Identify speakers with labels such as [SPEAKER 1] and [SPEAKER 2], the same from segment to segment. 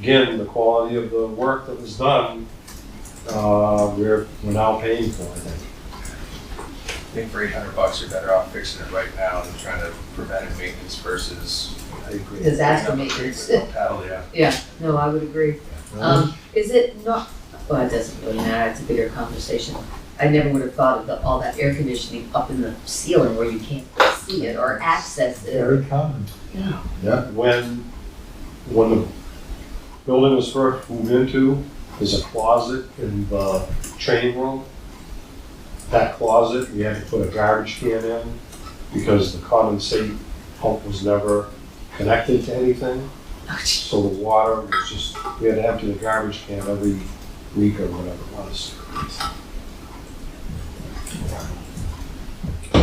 [SPEAKER 1] again, the quality of the work that was done, uh, we're, we're now paying for, I think.
[SPEAKER 2] I think for eight hundred bucks, you're better off fixing it right now than trying to prevent it maintenance versus.
[SPEAKER 1] I agree.
[SPEAKER 2] putting
[SPEAKER 3] disaster
[SPEAKER 2] up a
[SPEAKER 3] maintenance.
[SPEAKER 2] treatment Paddle, yeah.
[SPEAKER 3] No, I would agree. Um, is it not, well, it doesn't really matter, it's a bigger conversation. I never would have thought of the, all that air conditioning up in the ceiling where you can't see it or access it.
[SPEAKER 4] Very common.
[SPEAKER 1] When, when the building was first moved into, there's a closet in the training room. That closet, we had to put a garbage can in because the condensate pump was never connected to anything.
[SPEAKER 3] Oh, gee.
[SPEAKER 1] So the water was just, we had to empty the garbage can every week or whatever it was.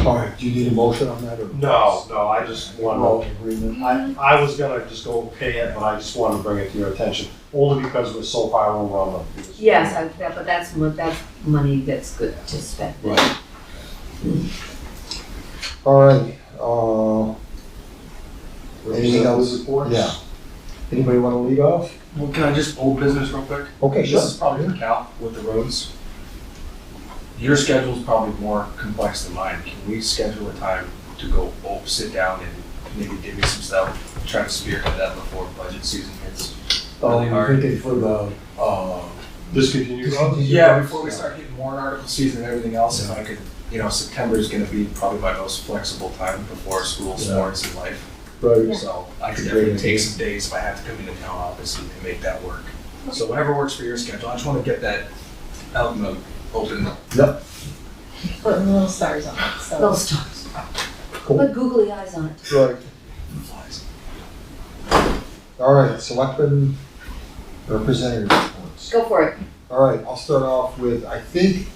[SPEAKER 4] All right, do you need a motion on that or?
[SPEAKER 1] No, no, I just
[SPEAKER 4] Roll
[SPEAKER 1] wanted,
[SPEAKER 4] agreement.
[SPEAKER 1] I, I was gonna just go pay it, but I just wanted to bring it to your attention, only because we're so far over on the.
[SPEAKER 3] Yes, I, that, but that's, mo- that's money that's good to spend.
[SPEAKER 1] Right.
[SPEAKER 4] All right, uh, Anything else?
[SPEAKER 1] Reports?
[SPEAKER 4] Yeah. anybody wanna lead off?
[SPEAKER 2] Well, can I just old business real quick?
[SPEAKER 4] Okay, sure.
[SPEAKER 2] This is probably for Cal with the roads. Your schedule's probably more complex than mine. Can we schedule a time to go, oh, sit down and maybe give me some stuff, try to spearhead that before budget season hits?
[SPEAKER 4] Oh,
[SPEAKER 2] Really
[SPEAKER 4] you're
[SPEAKER 2] hard.
[SPEAKER 4] thinking for the, uh.
[SPEAKER 1] Discontinued.
[SPEAKER 2] Yeah, before we start hitting warrant article season and everything else, if I could, you know, September is gonna be probably my most flexible time before school,
[SPEAKER 4] Yeah.
[SPEAKER 2] sports, and life.
[SPEAKER 4] Right,
[SPEAKER 2] So I could
[SPEAKER 4] Yeah.
[SPEAKER 2] definitely take some days if I have to come into town office and and make that work. So whatever works for your schedule, I just wanna get that out in the open.
[SPEAKER 5] putting little stars on it, so.
[SPEAKER 3] Little stars. Put googly eyes on it.
[SPEAKER 4] right.
[SPEAKER 2] Flies.
[SPEAKER 4] All right, selectmen representative reports.
[SPEAKER 3] Go for it.
[SPEAKER 4] All right, I'll start off with, I think,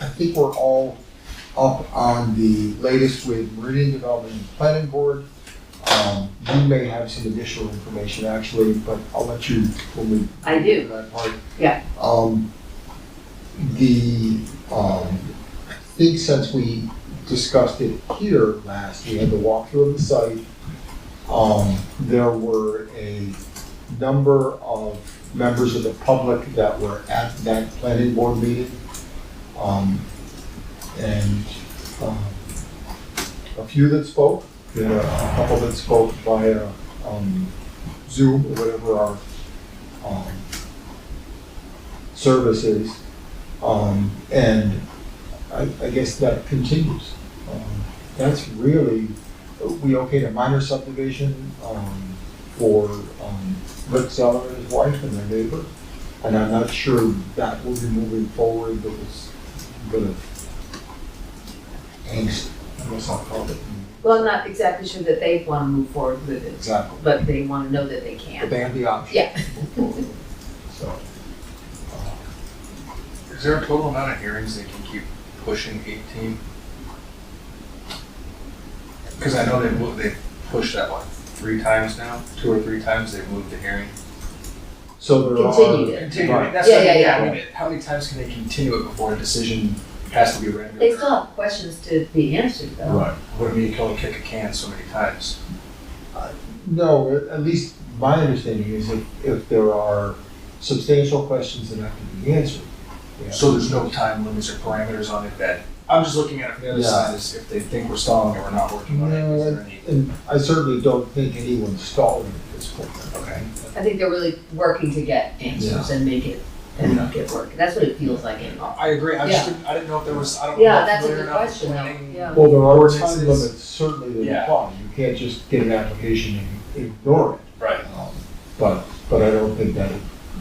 [SPEAKER 4] I think we're all up on the latest with Meridian Development and Planning Board. Um, you may have some additional information actually, but I'll let you, when we.
[SPEAKER 3] I do.
[SPEAKER 4] That part.
[SPEAKER 3] Yeah.
[SPEAKER 4] Um, the, um, I think since we discussed it here last, we had the walkthrough of the site. Um, there were a number of members of the public that were at that planning board meeting. Um, and, um, a few that spoke, there were a couple that spoke via, um, Zoom or whatever our, um, services. Um, and I, I guess that continues. Um, That's really, we okayed a minor subdivision, um, for, um, Rick Zeller and his wife and their neighbor. And I'm not sure that will be moving forward, but it's gonna, angst, I guess I'll call it.
[SPEAKER 3] Well, I'm not exactly sure that they wanna move forward with it,
[SPEAKER 4] Exactly.
[SPEAKER 3] but they wanna know that they
[SPEAKER 4] But
[SPEAKER 3] can.
[SPEAKER 4] they have the option.
[SPEAKER 3] Yeah.
[SPEAKER 4] So, uh,
[SPEAKER 2] Is there a total amount of hearings they can keep pushing eighteen? Cause I know they moved, they pushed that one three times now, two or three times they moved the hearing.
[SPEAKER 4] so there are.
[SPEAKER 3] Continued it.
[SPEAKER 2] Continue,
[SPEAKER 4] Right.
[SPEAKER 2] that's what I
[SPEAKER 3] Yeah,
[SPEAKER 2] mean,
[SPEAKER 3] yeah,
[SPEAKER 2] yeah, I mean, how many times can they continue it before a decision has to be rendered?
[SPEAKER 3] They still have questions to be answered though.
[SPEAKER 4] Right.
[SPEAKER 2] What do you mean, you can only kick a can so many times?
[SPEAKER 4] No, at- at least my understanding is if, if there are substantial questions that have to be answered. yeah.
[SPEAKER 2] So there's no time limits or parameters on it that, I'm just looking at it from the other
[SPEAKER 4] Yeah.
[SPEAKER 2] side, is if they think we're stalling or we're not working on it, is there any?
[SPEAKER 4] And I certainly don't think anyone's stalling at this point.
[SPEAKER 2] Okay.
[SPEAKER 3] I think they're really working to get answers and make it, and make it work. That's what it feels like in
[SPEAKER 2] I I agree, I just, didn't- I didn't know if there was, I don't know.
[SPEAKER 3] Yeah,
[SPEAKER 2] if
[SPEAKER 3] that's a
[SPEAKER 2] whether or
[SPEAKER 3] good
[SPEAKER 2] not the
[SPEAKER 3] question though,
[SPEAKER 2] planning-
[SPEAKER 3] yeah.
[SPEAKER 4] Well, there are
[SPEAKER 2] Ordinances.
[SPEAKER 4] time limits certainly that
[SPEAKER 2] Yeah.
[SPEAKER 4] apply. You can't just get an application and ignore it.
[SPEAKER 2] Right,
[SPEAKER 4] Um, But, but I don't think that,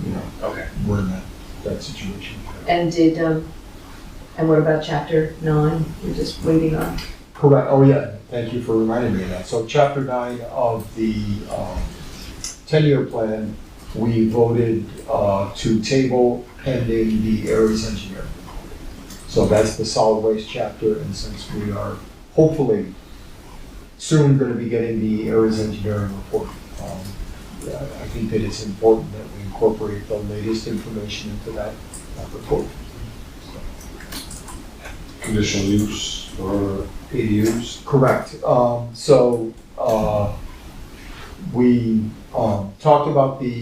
[SPEAKER 4] you know,
[SPEAKER 2] okay.
[SPEAKER 4] we're in that, that situation.
[SPEAKER 3] And did, um, and what about chapter nine? You're just waiting on.
[SPEAKER 4] Correct, oh yeah, thank you for reminding me of that. So chapter nine of the um, ten-year plan, we voted uh, to table pending the Aries engineer. So that's the solid waste chapter, and since we are hopefully soon gonna be getting the Aries engineering report, um, yeah, I think that it's important that we incorporate the latest information into that that report.
[SPEAKER 1] Conditional use or ADUs.
[SPEAKER 4] Correct. Um, so, uh, we, um, talked about the